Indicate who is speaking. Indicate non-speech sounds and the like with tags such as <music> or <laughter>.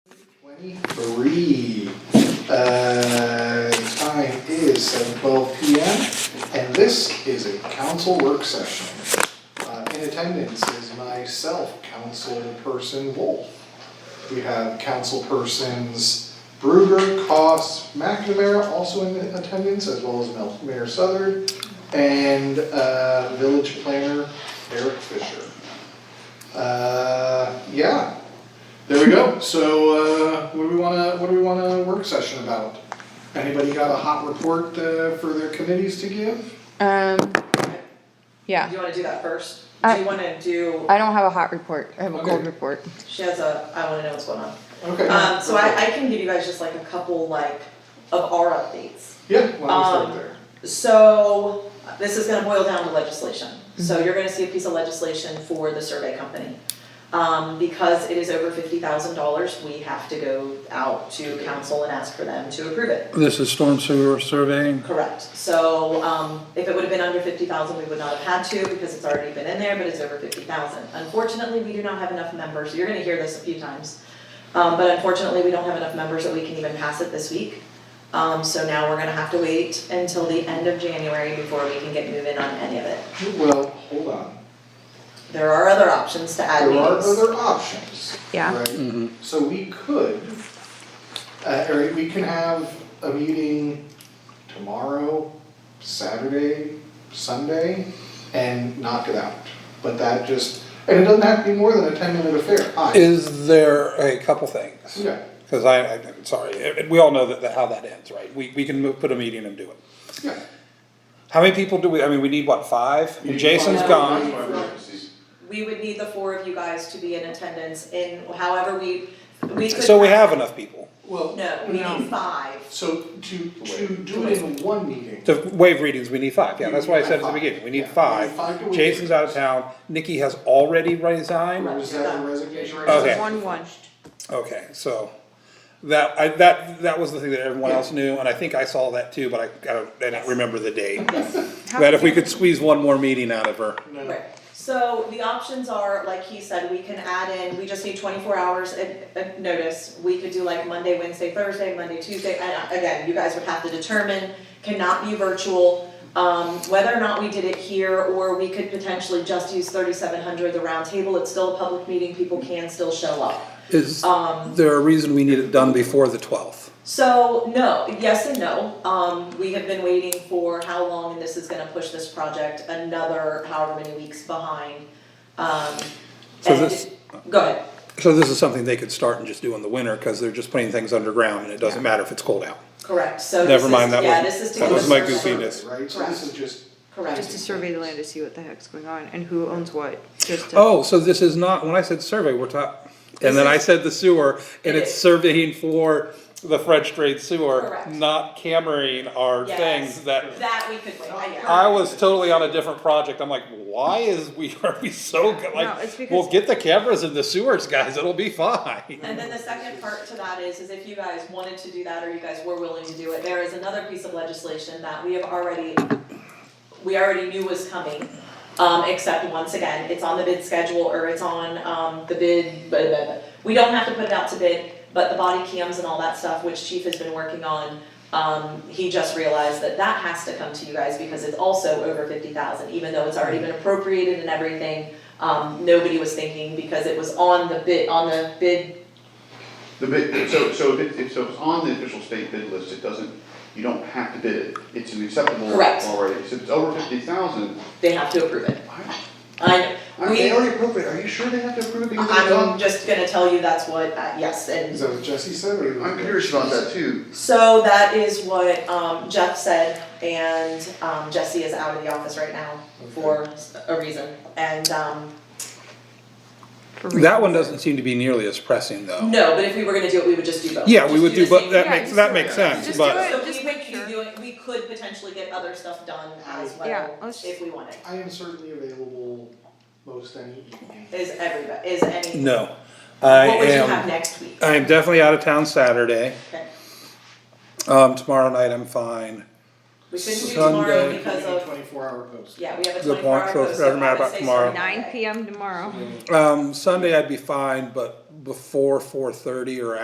Speaker 1: three. Uh, time is seven twelve P M, and this is a council work session. Uh, in attendance is myself, councilperson Wolf. We have councilpersons Bruder, Cost, McNamara also in attendance, as well as Mel- Mayor Southard, and, uh, village planner Eric Fisher. Uh, yeah, there we go. So, uh, what do we wanna, what do we want a work session about? Anybody got a hot report, uh, for their committees to give?
Speaker 2: Um,
Speaker 3: Do
Speaker 2: yeah,
Speaker 3: you wanna do that first?
Speaker 2: I-
Speaker 3: Do you wanna do,
Speaker 2: I don't have a hot report. I have a cold
Speaker 1: Okay.
Speaker 2: report.
Speaker 3: she has a, I wanna know what's going on.
Speaker 1: Okay.
Speaker 3: Um, so I, I can give you guys just like a couple like of our updates.
Speaker 1: Yeah, well, I'll start
Speaker 3: um,
Speaker 1: there.
Speaker 3: So, this is gonna boil down to legislation. So you're gonna see a piece of legislation for the survey company. Um, because it is over fifty thousand dollars, we have to go out to council and ask for them to approve it.
Speaker 4: This is storm sewer surveying.
Speaker 3: Correct, so, um, if it would have been under fifty thousand, we would not have had to, because it's already been in there, but it's over fifty thousand. Unfortunately, we do not have enough members, you're gonna hear this a few times, um, but unfortunately, we don't have enough members that we can even pass it this week. Um, so now we're gonna have to wait until the end of January before we can get moving on any of it.
Speaker 1: Well, hold on.
Speaker 3: There are other options to add
Speaker 1: There are
Speaker 3: meetings.
Speaker 1: other options.
Speaker 2: Yeah.
Speaker 1: right? So we could, uh, or we can have a meeting tomorrow, Saturday, Sunday, and knock it out. But that just, and it doesn't have to be more than a ten minute affair, I,
Speaker 4: Is there a couple things?
Speaker 1: yeah,
Speaker 4: Because I, I- I'm sorry, eh, we all know that, that how that ends, right? We, we can move, put a meeting and do it.
Speaker 1: yeah.
Speaker 4: How many people do we, I mean, we need what, five?
Speaker 1: You need
Speaker 4: Jason's
Speaker 1: five.
Speaker 4: gone.
Speaker 3: We would need the four of you guys to be in attendance in however we, we could.
Speaker 4: So we have enough people
Speaker 1: Well,
Speaker 3: No, we need five.
Speaker 1: So to, to do it in one meeting,
Speaker 4: to waive readings. We need five. Yeah, that's why I said at the beginning, we
Speaker 1: Yeah,
Speaker 4: need
Speaker 1: we need
Speaker 4: five.
Speaker 1: five to waive
Speaker 4: Jason's out of town. Nikki has already resigned.
Speaker 1: or is that a resignation?
Speaker 4: Okay.
Speaker 2: One, one.
Speaker 4: Okay, so that I, that that was the thing that everyone else knew, and I think I saw that too, but I, I don't I don't remember the date. That if we could squeeze one more meeting out of her.
Speaker 1: No.
Speaker 3: Right, so the options are, like he said, we can add in, we just need twenty-four hours of, of notice. We could do like Monday, Wednesday, Thursday, Monday, Tuesday, and uh, again, you guys would have to determine, cannot be virtual. Um, whether or not we did it here, or we could potentially just use thirty-seven hundred, the round table, it's still a public meeting, people can still show up.
Speaker 4: Is there a reason we need it done before the twelfth?
Speaker 3: So, no, yes and no, um, we have been waiting for how long, and this is gonna push this project another however many weeks behind. Um,
Speaker 4: So
Speaker 3: and-
Speaker 4: this-
Speaker 3: Go ahead.
Speaker 4: So this is something they could start and just do in the winter because they're just putting things underground and it doesn't matter if it's cold out.
Speaker 3: Correct, so this
Speaker 4: Never
Speaker 3: is,
Speaker 4: mind, that
Speaker 3: yeah,
Speaker 4: was-
Speaker 3: this is to
Speaker 4: that
Speaker 3: give
Speaker 4: was
Speaker 3: us
Speaker 4: my
Speaker 3: survey.
Speaker 4: goofiness.
Speaker 1: Right, so this is just,
Speaker 3: Correct.
Speaker 2: Just to survey the land to see what the heck's going on and who owns what, just to.
Speaker 4: Oh, so this is not when I said survey, we're talking. And then I said the sewer, and it's surveying for the French Strait sewer,
Speaker 3: Correct.
Speaker 4: not cammering our
Speaker 3: Yes.
Speaker 4: things that
Speaker 3: That we could wait, I- yeah.
Speaker 4: I was totally on a different project. I'm like, why is we <laughs> are we so good?
Speaker 2: No, it's
Speaker 4: Like,
Speaker 2: because-
Speaker 4: we'll get the cameras in the sewers, guys. It'll be fine.
Speaker 3: <laughs> And then the second part to that is, is if you guys wanted to do that or you guys were willing to do it, there is another piece of legislation that we have already, we already knew was coming. Um, except once again, it's on the bid schedule or it's on, um, the bid, blah, blah, blah. We don't have to put it out to bid, but the body cams and all that stuff, which chief has been working on, um, he just realized that that has to come to you guys because it's also over fifty thousand, even though it's already been appropriated and everything. Um, nobody was thinking because it was on the bid, on the bid
Speaker 5: The bid, so, so if it, so it's on the official state bid list, it doesn't, you don't have to bid it, it's an acceptable
Speaker 3: Correct.
Speaker 5: already, so if it's over fifty thousand,
Speaker 3: they have to approve it.
Speaker 5: why,
Speaker 3: I,
Speaker 5: aren't
Speaker 3: we,
Speaker 5: they already appropriate, are you sure they have to approve it because it's
Speaker 3: I'm
Speaker 5: on?
Speaker 3: just gonna tell you that's what, uh, yes,
Speaker 1: is
Speaker 3: and
Speaker 1: that what Jesse said or?
Speaker 5: I'm curious about that too,
Speaker 3: so that is what, um, Jeff said, and, um, Jesse is out of the office right now for a reason, and, um,
Speaker 2: for
Speaker 4: That
Speaker 2: reasons.
Speaker 4: one doesn't seem to be nearly as pressing, though.
Speaker 3: no, but if we were gonna do it, we would just do both.
Speaker 4: Yeah, we
Speaker 3: Just
Speaker 4: would do,
Speaker 3: the
Speaker 4: but
Speaker 3: same-
Speaker 4: that
Speaker 2: Yeah,
Speaker 4: makes
Speaker 2: just
Speaker 4: that
Speaker 2: do
Speaker 4: makes
Speaker 2: it.
Speaker 4: sense.
Speaker 2: Just
Speaker 4: But
Speaker 2: do it.
Speaker 3: So
Speaker 2: just
Speaker 3: we
Speaker 2: make
Speaker 3: would be
Speaker 2: sure.
Speaker 3: doing, we could potentially get other stuff done as
Speaker 2: Yeah,
Speaker 3: well,
Speaker 2: let's-
Speaker 3: if we wanted,
Speaker 1: I am certainly available most any evening.
Speaker 3: is everybody, is any,
Speaker 4: no, I
Speaker 3: what would you have
Speaker 4: am.
Speaker 3: next week?
Speaker 4: I am definitely out of town Saturday.
Speaker 3: Okay.
Speaker 4: Um, tomorrow night I'm fine.
Speaker 3: We couldn't do tomorrow
Speaker 4: Sunday.
Speaker 3: because
Speaker 1: Maybe
Speaker 3: of,
Speaker 1: Twenty-four hour post.
Speaker 3: yeah, we have a
Speaker 4: Good
Speaker 3: twenty-four
Speaker 4: point,
Speaker 3: hour
Speaker 4: so it
Speaker 3: post, so
Speaker 4: doesn't matter
Speaker 3: I would
Speaker 4: about
Speaker 3: say
Speaker 4: tomorrow.
Speaker 3: Sunday.
Speaker 2: Nine PM tomorrow.
Speaker 4: Um, Sunday I'd be fine, but before four thirty or